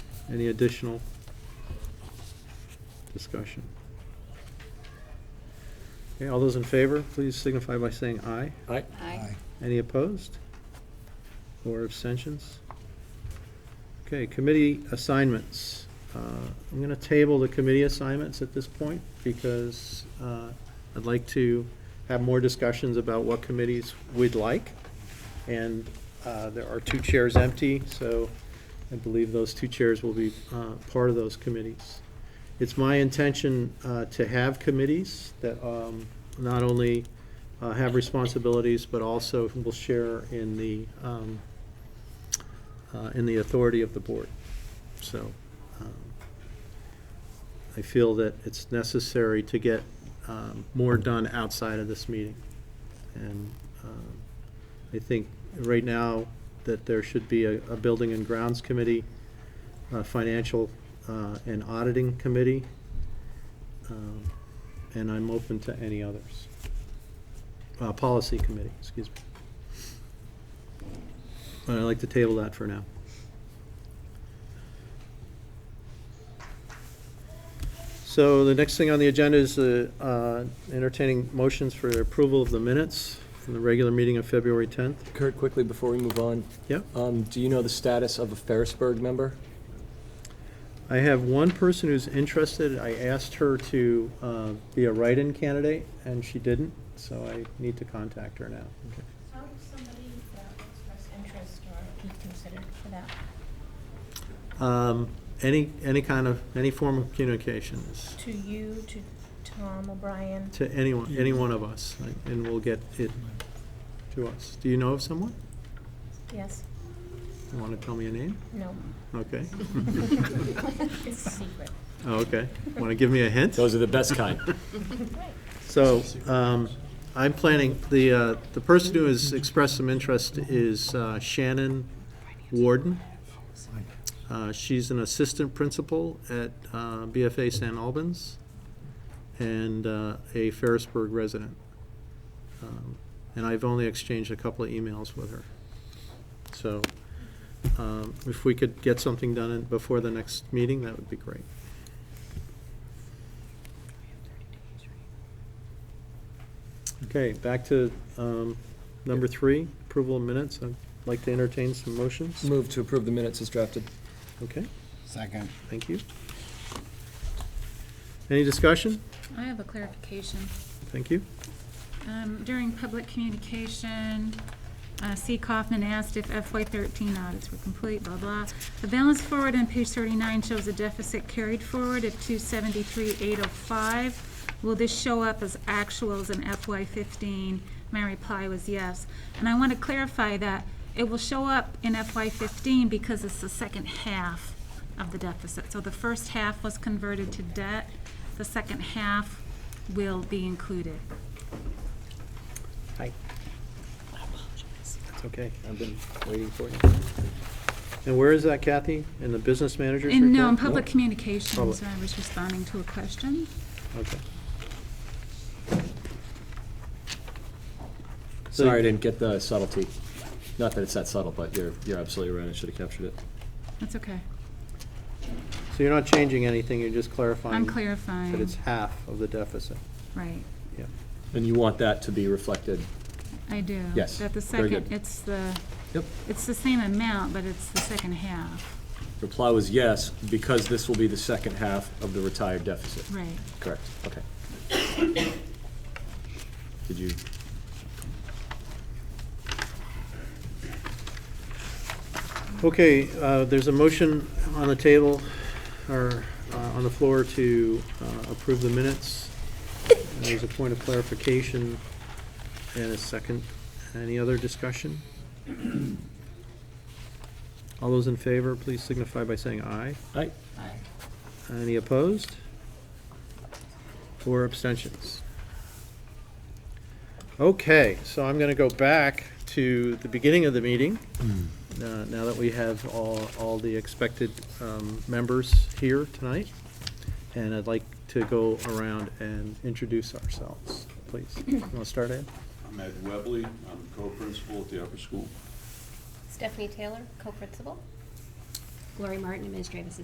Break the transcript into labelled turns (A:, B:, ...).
A: Any additional discussion? Okay, all those in favor, please signify by saying aye.
B: Aye.
C: Aye.
A: Any opposed? Or abstentions? Okay, committee assignments. Uh, I'm going to table the committee assignments at this point because uh, I'd like to have more discussions about what committees we'd like. And uh, there are two chairs empty, so I believe those two chairs will be uh, part of those committees. It's my intention uh, to have committees that um, not only uh, have responsibilities, but also will share in the, um, uh, in the authority of the board. So um, I feel that it's necessary to get um, more done outside of this meeting. And um, I think right now that there should be a, a building and grounds committee, a financial uh, and auditing committee, um, and I'm open to any others. Uh, policy committee, excuse me. But I'd like to table that for now. So the next thing on the agenda is uh, uh, entertaining motions for approval of the minutes from the regular meeting of February 10th.
B: Kurt, quickly before we move on,
A: Yep.
B: um, do you know the status of a Ferrisburg member?
A: I have one person who's interested. I asked her to uh, be a write-in candidate, and she didn't, so I need to contact her now.
D: How does somebody that express interest or be considered for that?
A: Um, Any, any kind of, any form of communication is
D: To you, to Tom O'Brien?
A: to anyone, any one of us, and will get it to us. Do you know of someone?
D: Yes?
A: You want to tell me a name?
D: No?
A: Okay.
D: It's a secret.
A: Oh, okay. Want to give me a hint?
B: Those are the best kind.
D: Right.
A: So, um, I'm planning, the, uh, the person who has expressed some interest is uh, Shannon Warden. Uh, she's an assistant principal at, uh, BFA San Albans and, uh, a Ferrisburg resident. Um, And I've only exchanged a couple of emails with her. So, um, if we could get something done in- before the next meeting, that would be great. Okay, back to um, number three, approval of minutes. I'd like to entertain some motions.
B: Move to approve the minutes as drafted.
A: Okay,
C: Second.
A: thank you. Any discussion?
E: I have a clarification.
A: Thank you.
E: Um, During public communication, uh, C. Kaufman asked if FY13 audits were complete, blah, blah. The balance forward on page 39 shows a deficit carried forward of 273,805. Will this show up as actuals in FY15? My reply was yes. And I want to clarify that it will show up in FY15 because it's the second half of the deficit. So the first half was converted to debt, the second half will be included.
A: Hi. That's okay.
B: I've been waiting for you.
A: And where is that, Kathy? In the business Oh, manager's report?
E: In, no, in public communications,
A: Public.
E: I was responding to a question.
A: Okay.
B: Sorry, I didn't get the subtlety. Not that it's that subtle, but you're, you're absolutely right. I should have captured it.
E: That's okay.
A: So you're not changing anything, you're just clarifying?
E: I'm clarifying.
A: That it's half of the deficit.
E: Right,
A: Yeah.
B: And you want that to be reflected?
E: I do.
B: Yes,
E: That the
B: very
E: second,
B: good.
E: it's the,
B: Yep.
E: it's the same amount, but it's the second half.
B: Reply was yes, because this will be the second half of the retired deficit.
E: Right.
B: Correct, okay. Did you?
A: Okay, uh, there's a motion on the table, or uh, on the floor to uh, approve the minutes. And There's a point of clarification and a second. Any other discussion? All those in favor, please signify by saying aye.
B: Aye.
A: Any opposed? Or abstentions? Okay, so I'm going to go back to the beginning of the meeting, uh, now that we have all, all the expected um, members here tonight. And I'd like to go around and introduce ourselves, please. You want to start, Ed?
F: I'm Ed Webley, I'm co-principal at the upper school.
G: Stephanie Taylor, co-principal. Lori Martin, administrative assistant.